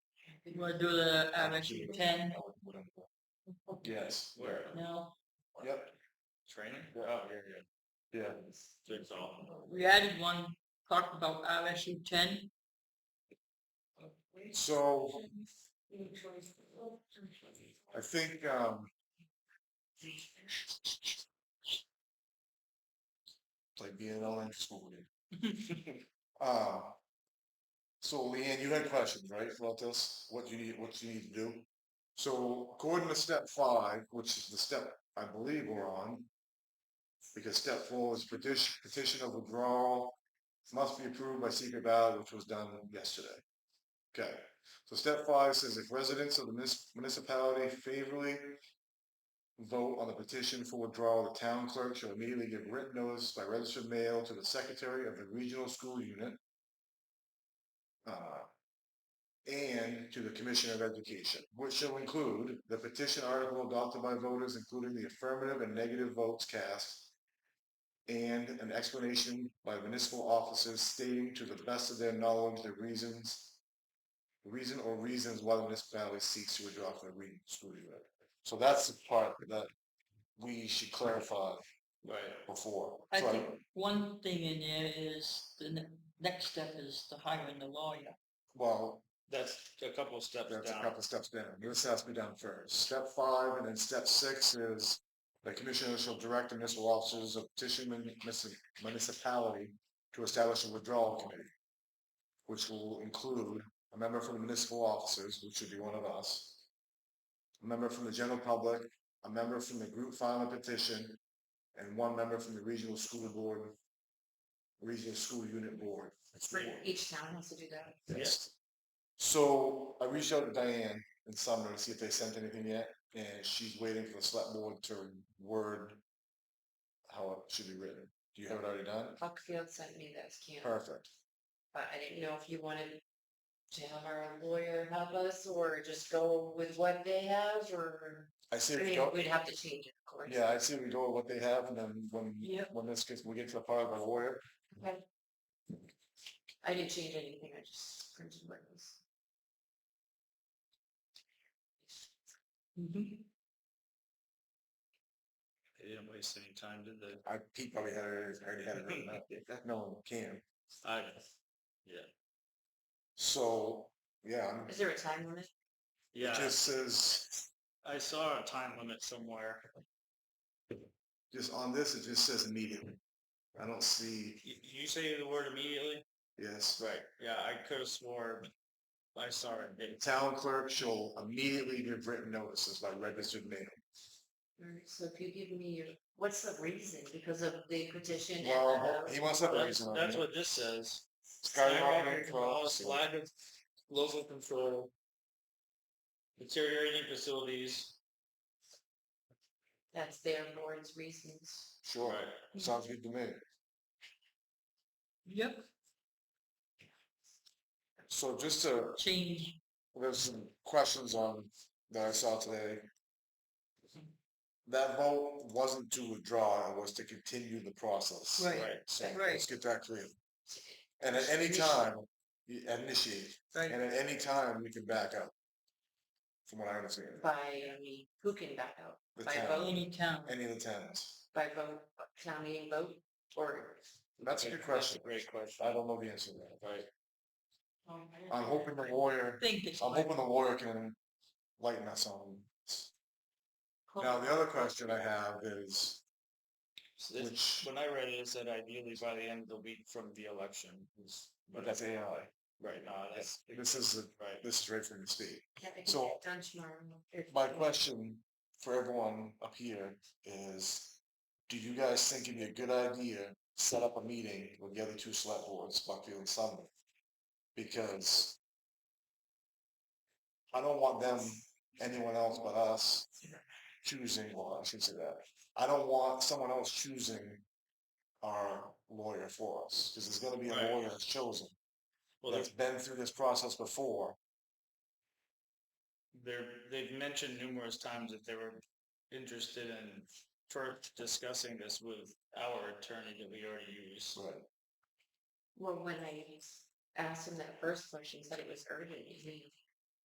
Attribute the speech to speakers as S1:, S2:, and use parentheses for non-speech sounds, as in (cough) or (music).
S1: You wanna do the, uh, mention ten?
S2: Yes, where?
S1: No,
S2: Yep.
S3: Training?
S2: Yeah.
S3: Oh, yeah, yeah.
S2: Yeah.
S3: Jigsaw.
S1: we added one, talked about MSU ten.
S2: So I think, um, it's like being in elementary school again. Uh, so Leanne, you had questions, right, about this? What you need, what you need to do? So according to step five, which is the step I believe we're on, because step four is petition, petition of withdrawal must be approved by secret ballot, which was done yesterday. Okay, so step five says if residents of the munis- municipality favorably vote on the petition for withdrawal, the town clerk shall immediately give written notice by registered mail to the secretary of the regional school unit uh, and to the Commissioner of Education, which shall include the petition article adopted by voters, including the affirmative and negative votes cast, and an explanation by municipal officers stating to the best of their knowledge the reasons the reason or reasons why the municipality seeks to withdraw from the regional school unit. So that's the part that we should clarify
S3: Right.
S2: before.
S1: I
S2: So
S1: think one thing in there is, the ne- next step is to hiring the lawyer.
S2: Well,
S3: That's a couple of steps
S2: that's a
S3: down.
S2: couple steps down. This has to be done first. Step five and then step six is the commissioner shall direct the municipal officers of petition mun- munici- municipality to establish a withdrawal committee, which will include a member from the municipal officers, which should be one of us, a member from the general public, a member from the group filing a petition, and one member from the regional school board, regional school unit board.
S4: Each town has to do that.
S2: Yes. So I reached out to Diane and Sumner to see if they sent anything yet, and she's waiting for the select board to word how it should be written. Do you have it already done?
S4: Buckfield sent me this, Kim,
S2: Perfect.
S4: but I didn't know if you wanted to have our lawyer help us or just go with what they have or,
S2: I see.
S4: I
S2: if we
S4: mean,
S2: go-
S4: we'd have to change it, of course.
S2: Yeah, I see. We go with what they have, and then when
S1: Yep.
S2: when this gets, we get to the part of the lawyer.
S4: Okay. I didn't change anything, I just printed what was.
S3: They didn't waste any time, did they?
S2: Oh, I Pete probably had it already had it
S3: (laughs)
S2: written up. No one can.
S3: I,
S2: So yeah, I'm-
S4: Is there a time limit?
S2: it
S3: yeah,
S2: just says
S3: I saw a time limit somewhere.
S2: just on this. It just says immediately. I don't see.
S3: You, you say the word immediately?
S2: Yes.
S3: Right. Yeah, I could have swore I saw it.
S2: The
S3: It-
S2: town clerk shall immediately give written notices by registered mail.
S4: Alright, so if you give me your, what's the reason? Because of the petition and
S2: Well,
S4: the.
S2: he wants that
S3: That's,
S2: reason on
S3: that's
S2: it.
S3: what this says.
S2: Skyrocketing
S3: Skyrocketing costs,
S2: costs.
S3: lack of local control, deteriorating facilities.
S4: That's their board's reasons.
S2: Sure,
S3: Right.
S2: sounds good to me.
S1: Yep,
S2: So just to,
S1: change,
S2: there's some questions on that I saw today. That vote wasn't to withdraw, it was to continue the process.
S1: Right.
S2: So
S1: Right.
S2: let's get that clear. And at any time, you initiate,
S1: right?
S2: and at any time, you can back out. From what I understand,
S4: By, I mean, who can back out?
S2: the
S4: by
S2: town,
S4: vote?
S1: Any town,
S2: any of the towns.
S4: By vote, town meeting vote, or?
S2: That's a good question.
S3: Great question.
S2: I don't know the answer to that.
S3: Right.
S2: I'm hoping the lawyer,
S1: think it's.
S2: I'm hoping the lawyer can lighten us on. Now, the other question I have is,
S3: So this-
S2: which,
S3: When I read it, it said ideally by the end of the week from the election. is-
S2: but that's AI.
S3: Right, no, that's.
S2: This is, the-
S3: Right.
S2: this is right from the state.
S4: Yeah, I can
S2: So-
S4: get it Done tomorrow. if-
S2: My question for everyone up here is, do you guys think it'd be a good idea, to set up a meeting with the other two select boards, Buckfield and Sumner? Because I don't want them, anyone else but us choosing, well, I should say that. I don't want someone else choosing our lawyer for us, because there's gonna be a
S3: Right.
S2: lawyer that's chosen,
S3: Well,
S2: that's
S3: there's,
S2: been through this process before.
S3: they're, they've mentioned numerous times that they were interested in first discussing this with our attorney that we already use.
S2: Right.
S4: Well, when I asked him that first question, he said it was urgent, he